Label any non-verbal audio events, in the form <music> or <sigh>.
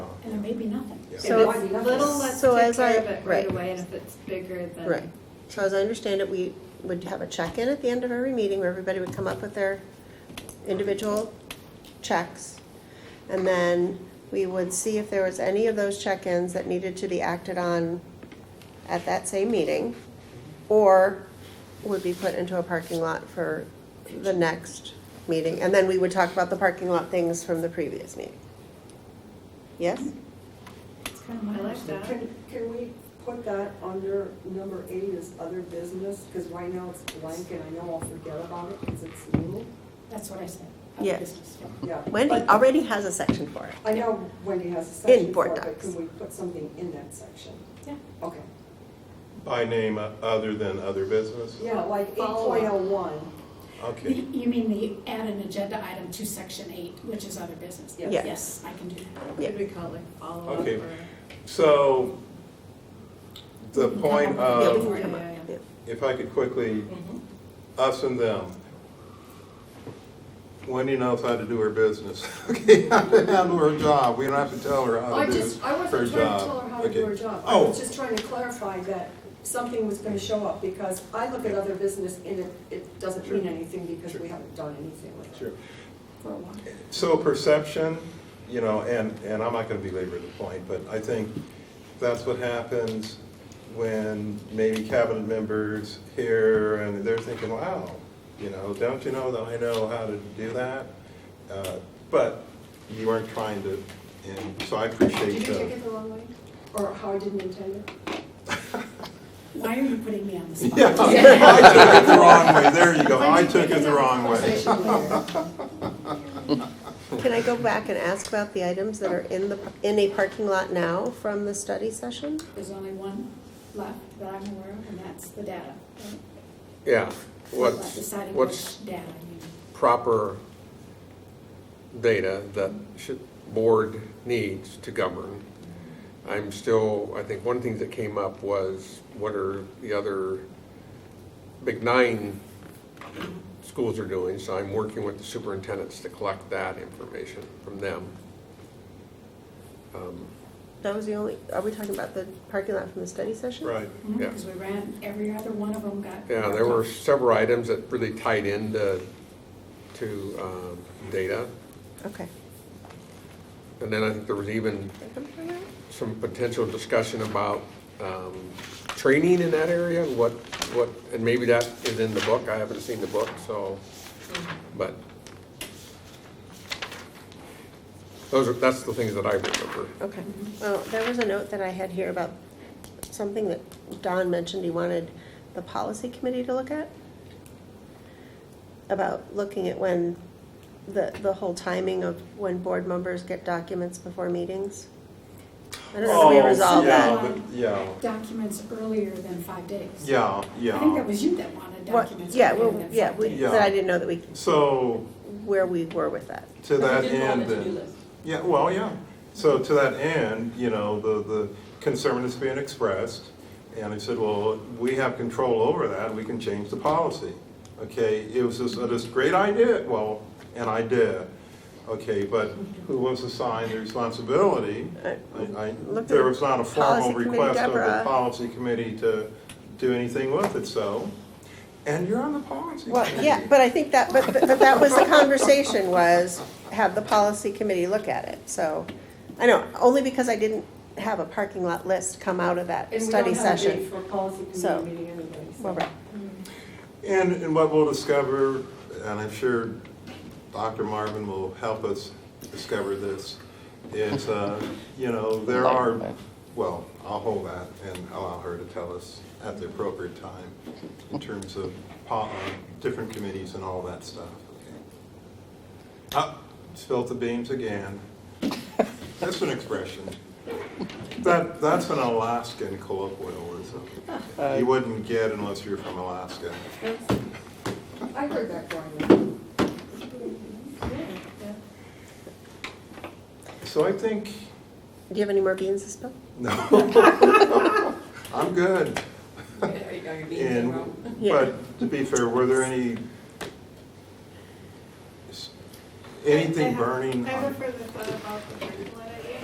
maybe nothing. Yeah. If So it's if- little, let's so take as I- care of it right right. away, and if it's bigger, then. Right. So as I understand it, we would have a check-in at the end of every meeting where everybody would come up with their individual checks. And then we would see if there was any of those check-ins that needed to be acted on at that same meeting or would be put into a parking lot for the next meeting. And then we would talk about the parking lot things from the previous meeting. Yes? It's kind of my lifestyle. Can, can we put that under number eight as other business? Because right now it's blank and I know I'll forget about it because it's new. That's what I said. Yes. Yeah. Wendy but- already has a section for it. I know Wendy has a section for board it, but docs. can we put something in that section? Yeah. Okay. By name uh, other than other business? Yeah, like eight Follow up. point oh one. Okay, You you mean the add an agenda item to section eight, which is other business? Yeah. Yes. Yes, I can do that. Yeah. Could we call it like follow-up Okay. or? so the We can point come up with- Yeah, we of, can come up. Yeah, yeah, Yeah. if I could quickly, Mm-hmm. Mhm. us and them. Wendy knows how to do her business, <laughs> okay, how to handle her job, we don't have to tell her how I to do her job. just, I wasn't trying to tell her how to do Okay. her job. I was Oh, just trying to clarify that something was gonna show up because I look at other business and it, it doesn't mean anything because we haven't done anything with it. sure. For a while. So perception, you know, and, and I'm not gonna belabor the point, but I think that's what happens when maybe cabinet members hear and they're thinking, wow, you know, don't you know that I know how to do that? Uh, But you weren't trying to, and so I Did appreciate you take the. it the wrong way? Or how I didn't intend it? Why are you putting me on the spot? Yeah, <laughs> I took <laughs> it the wrong way, there you go, I took it the wrong way. Conversation later. Can I go back and ask about the items that are in the, in a parking lot now from the study session? There's only one left that I'm aware of, and that's the data. right? Yeah, what's, Deciding what's which data you proper data that should, board needs to govern. I'm still, I think one of the things that came up was what are the other big nine schools are doing, so I'm working with the superintendents to collect that information from them. Um, That was the only, are we talking about the parking lot from the study session? Right, Yeah. Because we ran, every other one of them got. Yeah, there were several items that really tied into, to um, data. Okay. And then I think there was even some potential discussion about um, training in that area, what, what, and maybe that is in the book, I haven't seen the book, so, but. Those are, that's the things that I remember. Okay. Well, there was a note that I had here about something that Don mentioned he wanted the policy committee to look at. About looking at when, the, the whole timing of when board members get documents before meetings. I don't know if Oh, we resolved yeah, that. but- yeah. Documents earlier than five days. yeah, I think that yeah, was you that wanted What- documents Yeah, earlier well, than yeah, five we- days. Yeah. that I didn't know that we, so where we were with that. to But that we didn't end. want a to-do then- list. Yeah, well, yeah. So to that end, you know, the, the concern is being expressed, and I said, well, we have control over that, we can change the policy. Okay, it was just, uh, this great idea, well, and I did. Okay, but who was assigned the responsibility? I, I- I, Look at there was not a formal policy committee, request of the Deborah. policy committee to do anything with it, so, and you're on the policy Well, <laughs> committee. yeah, but I think that, but, but but that was the conversation was have the policy committee look at it, so. I know, only because I didn't have a parking lot list come out of that And we study don't have a date session. for a policy So- committee meeting anyway, so. Well, right. And, and what we'll discover, and I'm sure Dr. Marvin will help us discover this, is, uh, you know, there are, well, I'll hold that and allow her to tell us at the appropriate time in terms of po- uh, different committees and all that stuff, okay? Up, spilt the beans again. That's an expression. That, that's an Alaskan colloquialism. You wouldn't get unless you're from Alaska. I heard that growing up. So I think, Do you have any more beans to spill? no, I'm good. Are you- are you being And, wrong? Yeah. but to be fair, were there any, anything burning? I have a on- further thought about the parking lot